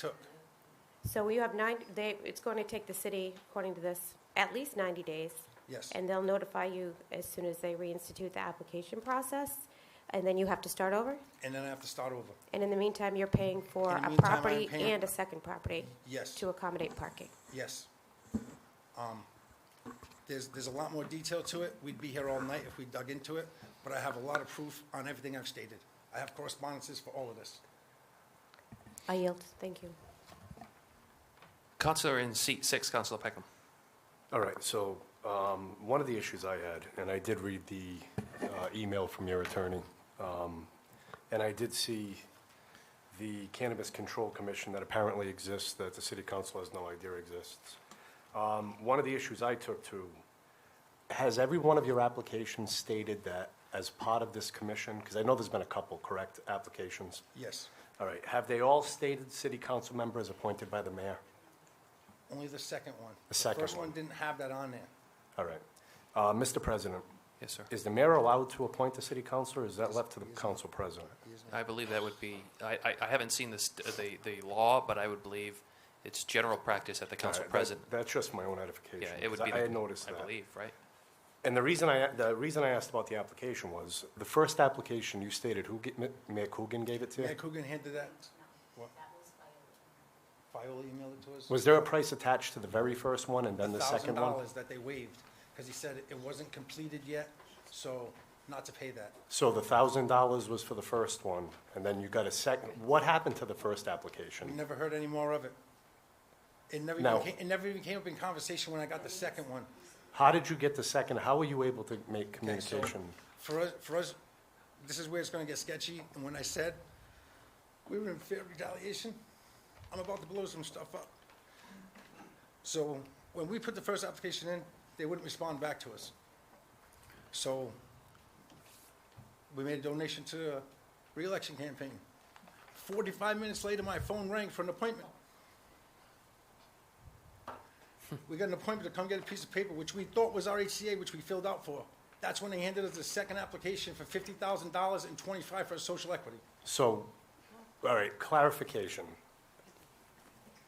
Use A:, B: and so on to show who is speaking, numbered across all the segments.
A: took?
B: So you have nine, they, it's going to take the city, according to this, at least 90 days.
A: Yes.
B: And they'll notify you as soon as they reinstitute the application process, and then you have to start over.
A: And then I have to start over?
B: And in the meantime, you're paying for
A: In the meantime,
B: a
A: I'm
B: property
A: paying-
B: and a second property
A: Yes,
B: to accommodate parking.
A: yes. Um, There's, there's a lot more detail to it. We'd be here all night if we dug into it, but I have a lot of proof on everything I've stated. I have correspondences for all of this.
B: I yield, thank you.
C: Counselor in seat six, Counselor Peckham.
D: All right, so um, one of the issues I had, and I did read the uh, email from your attorney, um, and I did see the Cannabis Control Commission that apparently exists, that the city council has no idea exists. Um, One of the issues I took to, has every one of your applications stated that as part of this commission, because I know there's been a couple, correct, applications?
A: Yes,
D: All right, have they all stated city council member as appointed by the mayor?
A: only the second one.
D: second
A: first
D: one.
A: one didn't have that on there.
D: All right. Uh, Mr. President?
C: Yes, sir.
D: Is the mayor allowed to appoint the city councilor, or is that left to the council president?
C: I believe that would be, I, I, I haven't seen this, the, the law, but I would believe it's general practice at the council
D: All right, that-
C: president.
D: That's just my own edification.
C: Yeah, it would be.
D: I
C: the-
D: had noticed
C: I
D: that.
C: believe, right?
D: And the reason I, the reason I asked about the application was, the first application you stated, who, ge- Ma- Mayor Coogan gave it to
A: Mayor
D: you?
A: Coogan handed that? What? Viola emailed it to us?
D: Was there a price attached to the very first one and then the second
A: Thousand
D: one?
A: dollars that they waived, because he said it wasn't completed yet, so not to pay that.
D: So the thousand dollars was for the first one, and then you got a second, what happened to the first
A: We
D: application?
A: never heard any more of it. It never, even
D: No.
A: came- it never even came up in conversation when I got the second one.
D: How did you get the second, how were you able to make
A: Okay, so
D: communication?
A: For us, for us, this is where it's gonna get sketchy, and when I said we were in fair retaliation, I'm about to blow some stuff up. So, when we put the first application in, they wouldn't respond back to us. So, we made a donation to the reelection campaign. Forty-five minutes later, my phone rang for an appointment. We got an appointment to come get a piece of paper, which we thought was our HCA, which we filled out for. That's when they handed us the second application for fifty thousand dollars and twenty-five for social equity.
D: So, all right, clarification.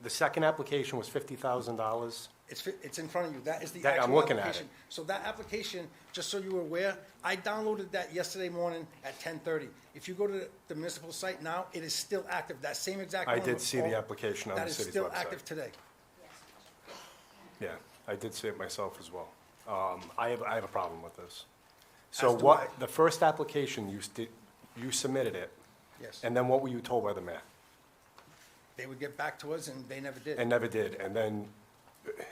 D: The second application was fifty thousand dollars?
A: It's, fi- it's in front of you. That is the
D: That- I'm
A: actual
D: looking at it.
A: application. So that application, just so you were aware, I downloaded that yesterday morning at ten thirty. If you go to the municipal site now, it is still active. That same exact.
D: I
A: one
D: did
A: with
D: see the
A: all-
D: application on the
A: That is
D: city's
A: still
D: website.
A: active today.
D: Yeah, I did see it myself as well. Um, I have, I have a problem with this. So
A: As do
D: what,
A: I.
D: the first application, you sti, you submitted it?
A: Yes.
D: And then what were you told by the mayor?
A: They would get back to us and they never did.
D: And never did, and then, uh,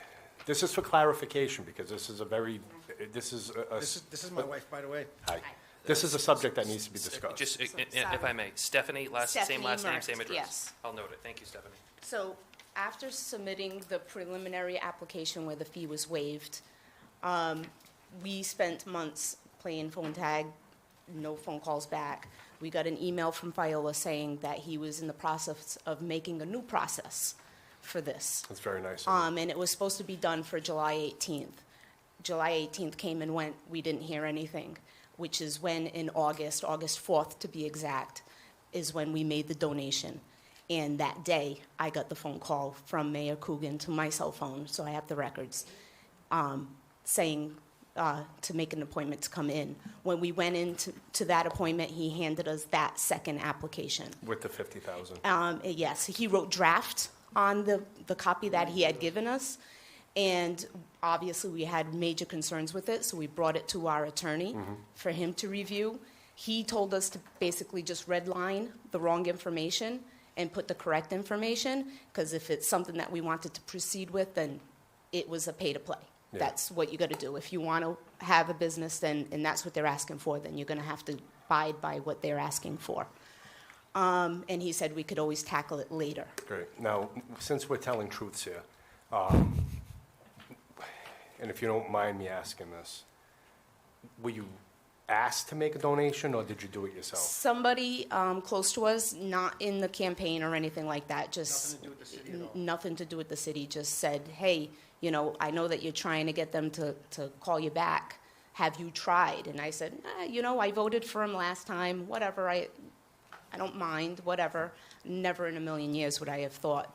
D: this is for clarification, because this is a very, this is a- a.
A: This is, this is my wife, by the way.
D: Hi. This is a subject that needs to be discussed.
C: Just, i- i- if I may, Stephanie, last, same
E: Stephanie
C: last name,
E: Mertz,
C: same address.
E: yes.
C: I'll note it. Thank you, Stephanie.
E: So after submitting the preliminary application where the fee was waived, um, we spent months playing phone tag, no phone calls back. We got an email from Viola saying that he was in the process of making a new process for this.
D: That's very nice. of you.
E: Um, and it was supposed to be done for July 18th. July 18th came and went, we didn't hear anything, which is when in August, August 4th to be exact, is when we made the donation. And that day, I got the phone call from Mayor Coogan to my cell phone, so I have the records, um, saying uh, to make an appointment to come in. When we went into to that appointment, he handed us that second application.
D: With the fifty thousand.
E: Um, yes, he wrote draft on the, the copy that he had given us. And obviously, we had major concerns with it, so we brought it to our attorney for him to review. He told us to basically just redline the wrong information and put the correct information, because if it's something that we wanted to proceed with, then it was a pay to play.
D: Yeah.
E: That's what you got to do. If you want to have a business, then, and that's what they're asking for, then you're going to have to abide by what they're asking for. Um, and he said we could always tackle it later.
D: Great. Now, since we're telling truths here, um, and if you don't mind me asking this, were you asked to make a donation or did you do it yourself?
E: Somebody um, close to us, not in the campaign or anything like that, just
A: Nothing to do with the city at all.
E: n- nothing to do with the city, just said, hey, you know, I know that you're trying to get them to, to call you back. Have you tried? And I said, "Eh, you know, I voted for him last time, whatever, I, I don't mind, whatever. Never in a million years would I have thought